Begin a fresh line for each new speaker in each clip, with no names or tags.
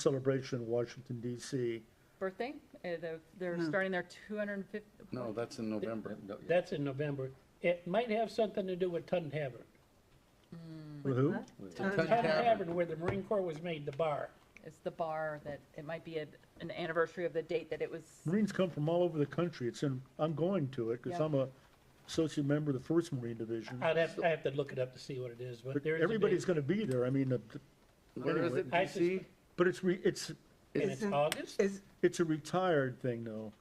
celebration in Washington DC.
birthday. Uh, they're, they're starting their 250.
No, that's in November.
That's in November. It might have something to do with Tun Tavern.
Who?
Tun Tavern.
Tun Tavern, where the Marine Corps was made, the bar.
It's the bar that, it might be a- an anniversary of the date that it was,
Marines come from all over the country. It's in, I'm going to it because
Yeah. Uh,
I'm a associate member of the First Marine Division.
I'd have, I have to look it up to see what it is, but
But
there is a date,
everybody's going to be there. I mean, uh, th-
Where is it,
I
DC?
but it's, re- it's,
And it's
Isn't-
August?
Is,
it's a retired thing though.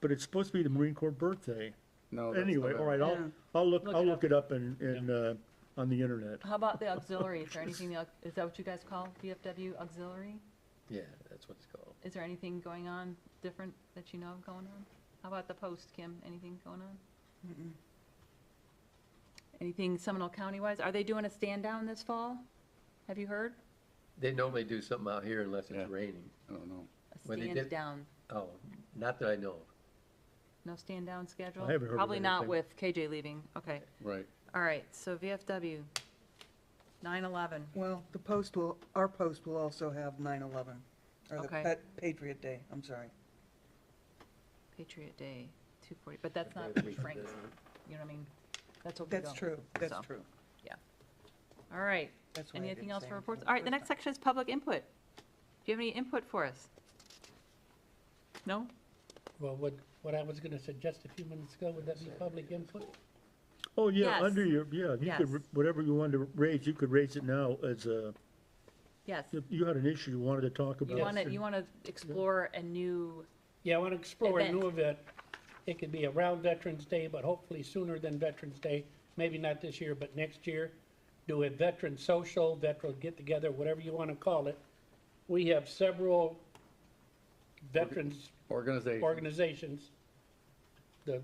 But it's supposed to be the Marine Corps birthday.
No. Oh, that's
Anyway, all
November.
right, I'll,
Yeah.
I'll look,
Look
I'll
it
look it up and, and, uh, on the internet.
how about the auxiliary? Is there anything, the aux- is that what you guys call VFW auxiliary?
Yeah, that's what it's called.
Is there anything going on different that you know of going on? How about the post, Kim? Anything going on? Anything Seminole County-wise? Are they doing a stand-down this fall? Have you heard?
They normally do something out here unless
Yeah.
it's raining.
I don't know.
A
Well, they did-
stand-down,
Oh, not that I know of.
no stand-down schedule?
haven't heard of
Probably not
anything.
with KJ leaving, okay.
Right.
All right, so VFW, 9/11.
well, the post will, our post will also have 9/11, or the
Okay.
Pat- Patriot Day, I'm sorry.
Patriot Day, 240, but that's not
Patriot Day.
Frank's, you know what I mean? That's what we
That's
go.
true, that's
So.
true.
All right,
That's why I
anything
didn't
else
say
for
anything
reports?
the
All right, the
first
next section is public input. Do you have any input for us? No?
Well, what, what I was gonna suggest a few minutes ago, would that be public input?
Oh, yeah,
Yes.
under your, yeah, you could,
Yes.
r- whatever you wanted to raise, you could raise it now as a,
Yes.
you- you had an issue you wanted to talk
You
about.
want to, you want to explore a new,
Yeah, I wanna explore a
Event.
new event. It could be around Veterans Day, but hopefully sooner than Veterans Day, maybe not this year, but next year. Do a veteran social, veteran get-together, whatever you wanna call it. We have several veterans
Organization.
organizations, the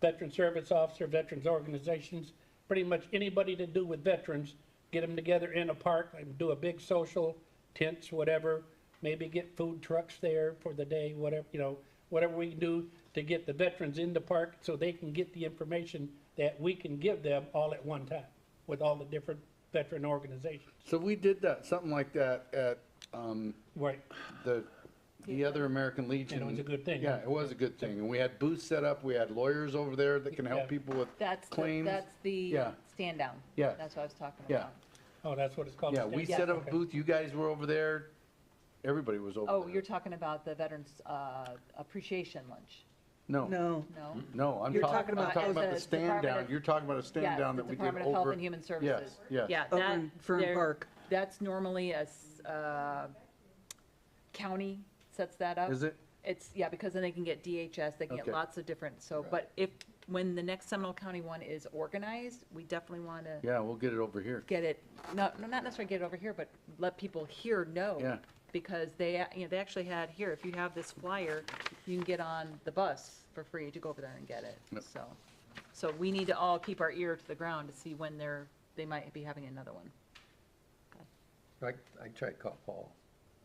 veteran service officer, veterans organizations, pretty much anybody to do with veterans, get them together in a park and do a big social, tents, whatever, maybe get food trucks there for the day, whatever, you know, whatever we can do to get the veterans in the park so they can get the information that we can give them all at one time with all the different veteran organizations.
So we did that, something like that at, um,
Right.
the, the other American Legion.
And it was a good thing.
Yeah, it was a good thing. And we had booths set up, we had lawyers over there that can
Yeah.
help people with
that's, the-
claims.
that's the
Yeah.
stand-down.
Yeah.
That's what I was talking
Yeah,
about.
Oh, that's what it's called.
yeah, we
Yeah.
set up
Okay.
a booth, you guys were over there, everybody was over there.
Oh, you're talking about the Veterans uh, Appreciation Lunch,
No,
No,
no?
no, I'm
You're
talking, I'm
talking about
talking
the
about the stand
Department
down,
of-
you're talking about a
Yes,
stand down
the
that we did over.
Department of Health and Human Services.
yes.
Yeah,
over
that,
in Fern
there-
Park.
That's normally a, s- uh, county sets that up.
Is it?
It's, yeah, because then they can get DHS, they can get
Okay.
lots of different, so,
Right.
but if, when the next Seminole County one is organized, we definitely want to
Yeah, we'll get it over here.
get it, not, no, not necessarily get it over here, but let people here know.
Yeah.
Because they, a- you know, they actually had here, if you have this flyer, you can get on the bus for free to go over there and get it,
Yep.
so. So we need to all keep our ear to the ground to see when they're, they might be having another one.
I, I tried to call Paul.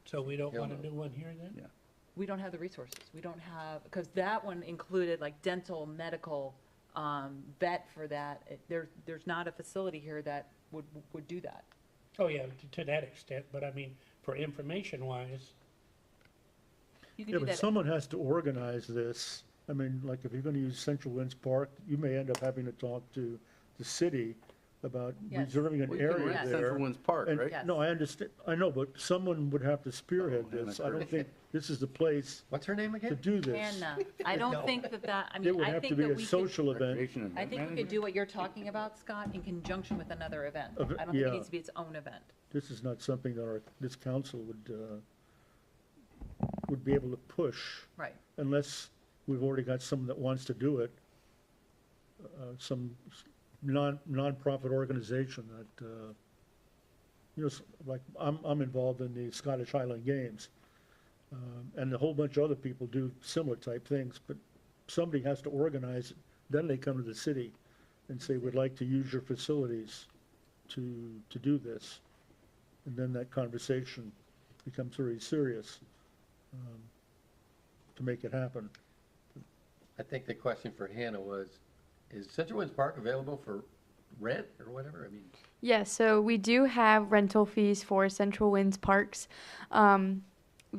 So we don't
Yeah,
wanna
no.
do one here then?
we don't have the resources. We don't have, because that one included like dental, medical, um, vet for that. It- There, there's not a facility here that would, would do that.
Oh, yeah, to- to that extent, but I mean, for information wise,
Yeah,
You could do
but
that.
someone has to organize this. I mean, like, if you're gonna use Central Winds Park, you may end up having to talk to the city about
Yes.
reserving an
We can
area
rent
there.
Central Winds Park,
And-
right?
Yes.
No, I understand, I know, but someone would have to spearhead
Oh, Hannah
this. I don't
Curtis.
think this is the place
What's her name
to
again?
do this.
And, uh, I don't think that that, I
It
mean,
would
I
have to
think
be
that
a
we could,
social event.
Recreation and
I think we
management.
could do what you're talking about, Scott, in conjunction with another event. I
Of
don't
it,
think it
yeah.
needs to be its own event.
This is not something that our, this council would, uh, would be able to push
Right.
unless we've already got someone that wants to do it. Uh, some s- non, nonprofit organization that, uh, you know, s- like, I'm, I'm involved in the Scottish Highland Games. Um, and a whole bunch of other people do similar type things, but somebody has to organize it. Then they come to the city and say, we'd like to use your facilities to, to do this. And then that conversation becomes very serious, um, to make it happen.
I think the question for Hannah was, is Central Winds Park available for rent or whatever? I mean,
Yeah, so we do have rental fees for Central Winds Parks. Um,